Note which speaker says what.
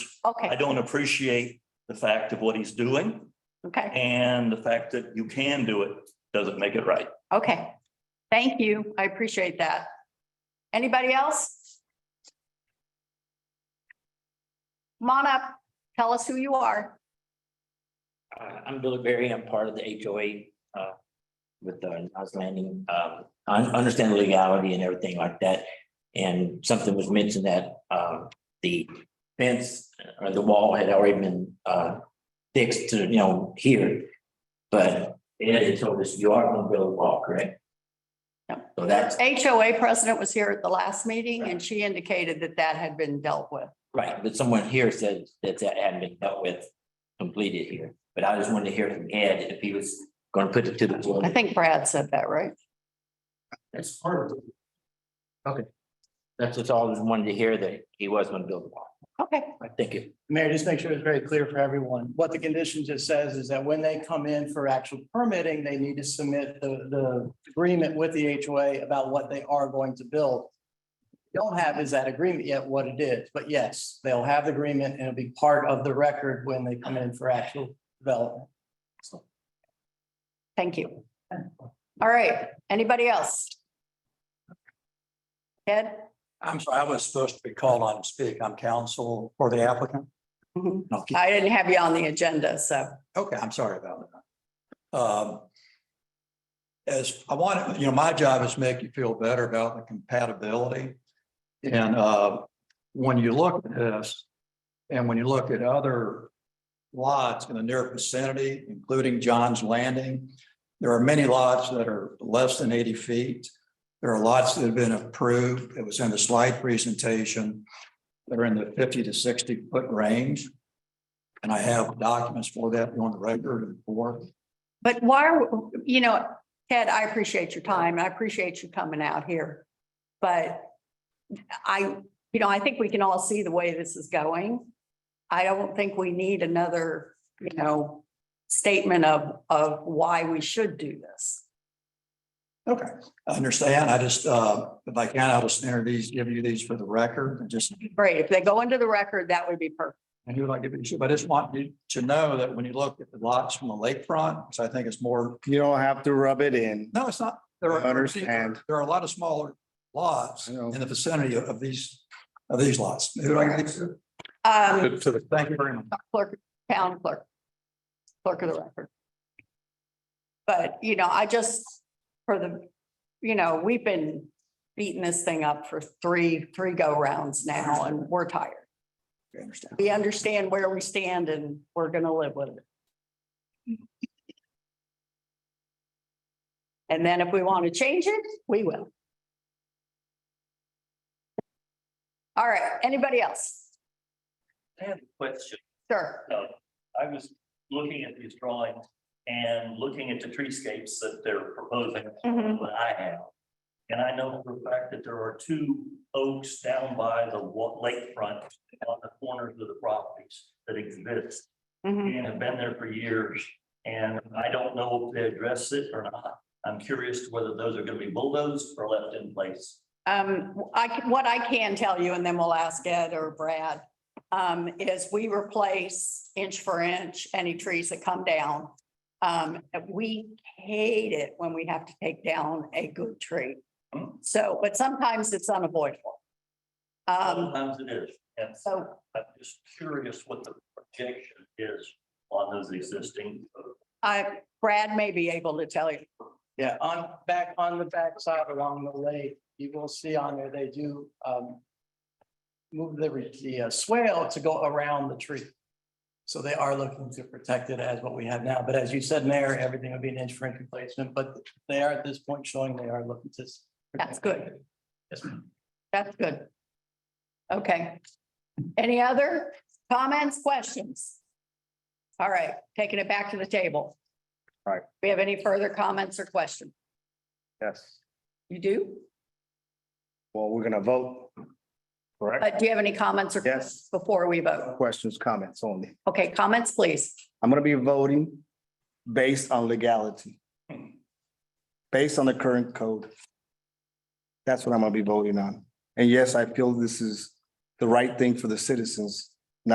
Speaker 1: I
Speaker 2: Okay,
Speaker 1: don't appreciate the fact of what he's doing
Speaker 2: okay,
Speaker 1: and the fact that you can do it doesn't make it right.
Speaker 2: okay. Thank you. I appreciate that. Anybody else? Come on up. Tell us who you are.
Speaker 3: Uh, I'm Billy Berry. I'm part of the HOA, uh, with the Nas Landing. Um, I understand the legality and everything like that. And something was mentioned that, um, the fence or the wall had already been, uh, fixed to, you know, here. But Ed had told us you are gonna build a wall, correct?
Speaker 2: Yep.
Speaker 3: So that's
Speaker 2: HOA president was here at the last meeting and she indicated that that had been dealt with.
Speaker 3: right, but someone here said that that hadn't been dealt with, completed here. But I just wanted to hear from Ed if he was gonna put it to the floor.
Speaker 2: I think Brad said that, right?
Speaker 3: That's part of it. Okay. That's just all I just wanted to hear that he was gonna build a wall.
Speaker 2: Okay,
Speaker 3: I think it,
Speaker 4: Mayor, just make sure it's very clear for everyone. What the condition just says is that when they come in for actual permitting, they need to submit the, the agreement with the HOA about what they are going to build. Don't have is that agreement yet what it is, but yes, they'll have the agreement and it'll be part of the record when they come in for actual development.
Speaker 2: thank you. All right, anybody else? Ed?
Speaker 5: I'm sorry, I was supposed to be called on to speak. I'm counsel for the applicant.
Speaker 2: Mhm.
Speaker 5: No, keep-
Speaker 2: I didn't have you on the agenda, so.
Speaker 5: Okay, I'm sorry about that. Um, As I want, you know, my job is to make you feel better about the compatibility. And uh, when you look at this, and when you look at other lots in the near vicinity, including John's Landing, there are many lots that are less than eighty feet. There are lots that have been approved. It was in the slide presentation. that are in the fifty to sixty foot range. And I have documents for that on the record and board.
Speaker 2: But why, you know, Ted, I appreciate your time. and I appreciate you coming out here. But I, you know, I think we can all see the way this is going. I don't think we need another, you know, statement of, of why we should do this.
Speaker 5: Okay. I understand. I just, uh, if I can, I'll just enter these, give you these for the record and just,
Speaker 2: Great. If they go into the record, that would be perfect.
Speaker 5: and who like give it to, but I just want you to know that when you look at the lots from the lakefront, which I think is more,
Speaker 6: You don't have to rub it in.
Speaker 5: no, it's not. There are,
Speaker 6: I understand.
Speaker 5: there are a lot of smaller lots
Speaker 6: I know.
Speaker 5: in the vicinity of these, of these lots. Who do I give these to?
Speaker 2: Um,
Speaker 5: Thank you very much.
Speaker 2: clerk, town clerk, clerk of the record. But, you know, I just, for the, you know, we've been beating this thing up for three, three go rounds now and we're tired.
Speaker 5: I understand.
Speaker 2: We understand where we stand and we're gonna live with it. And then if we want to change it, we will. All right, anybody else?
Speaker 1: I have a question.
Speaker 2: Sure,
Speaker 1: No, I was looking at these drawings and looking at the treescapes that they're proposing
Speaker 2: Mhm.
Speaker 1: that I have. And I know for a fact that there are two oaks down by the wa- lakefront on the corners of the properties that exist
Speaker 2: Mhm.
Speaker 1: and have been there for years. And I don't know if they address it or not. I'm curious whether those are gonna be bulldozed or left in place.
Speaker 2: Um, I, c- what I can tell you, and then we'll ask Ed or Brad, um, is we replace inch for inch any trees that come down. Um, and we hate it when we have to take down a good tree.
Speaker 1: Hmm.
Speaker 2: So, but sometimes it's unavoidable. Um,
Speaker 1: Sometimes it is. And
Speaker 2: so
Speaker 1: I'm just curious what the projection is on those existing oaks.
Speaker 2: I, Brad may be able to tell you.
Speaker 4: Yeah, on, back on the backside along the lake, you will see on there, they do, um. Move the, re- the uh, swale to go around the tree. So they are looking to protect it as what we have now, but as you said, Mayor, everything would be an inch for inch replacement, but they are at this point showing they are looking to. s-
Speaker 2: That's good.
Speaker 4: Yes, ma'am.
Speaker 2: That's good. Okay. Any other comments, questions? All right, taking it back to the table.
Speaker 6: All right.
Speaker 2: We have any further comments or questions?
Speaker 6: Yes.
Speaker 2: You do?
Speaker 6: Well, we're gonna vote. Correct?
Speaker 2: But Uh, do you have any comments or?
Speaker 6: Yes.
Speaker 2: Before we vote?
Speaker 6: Questions, comments only.
Speaker 2: Okay, comments, please.
Speaker 6: I'm gonna be voting based on legality. Based on the current code. That's what I'm gonna be voting on. And yes, I feel this is the right thing for the citizens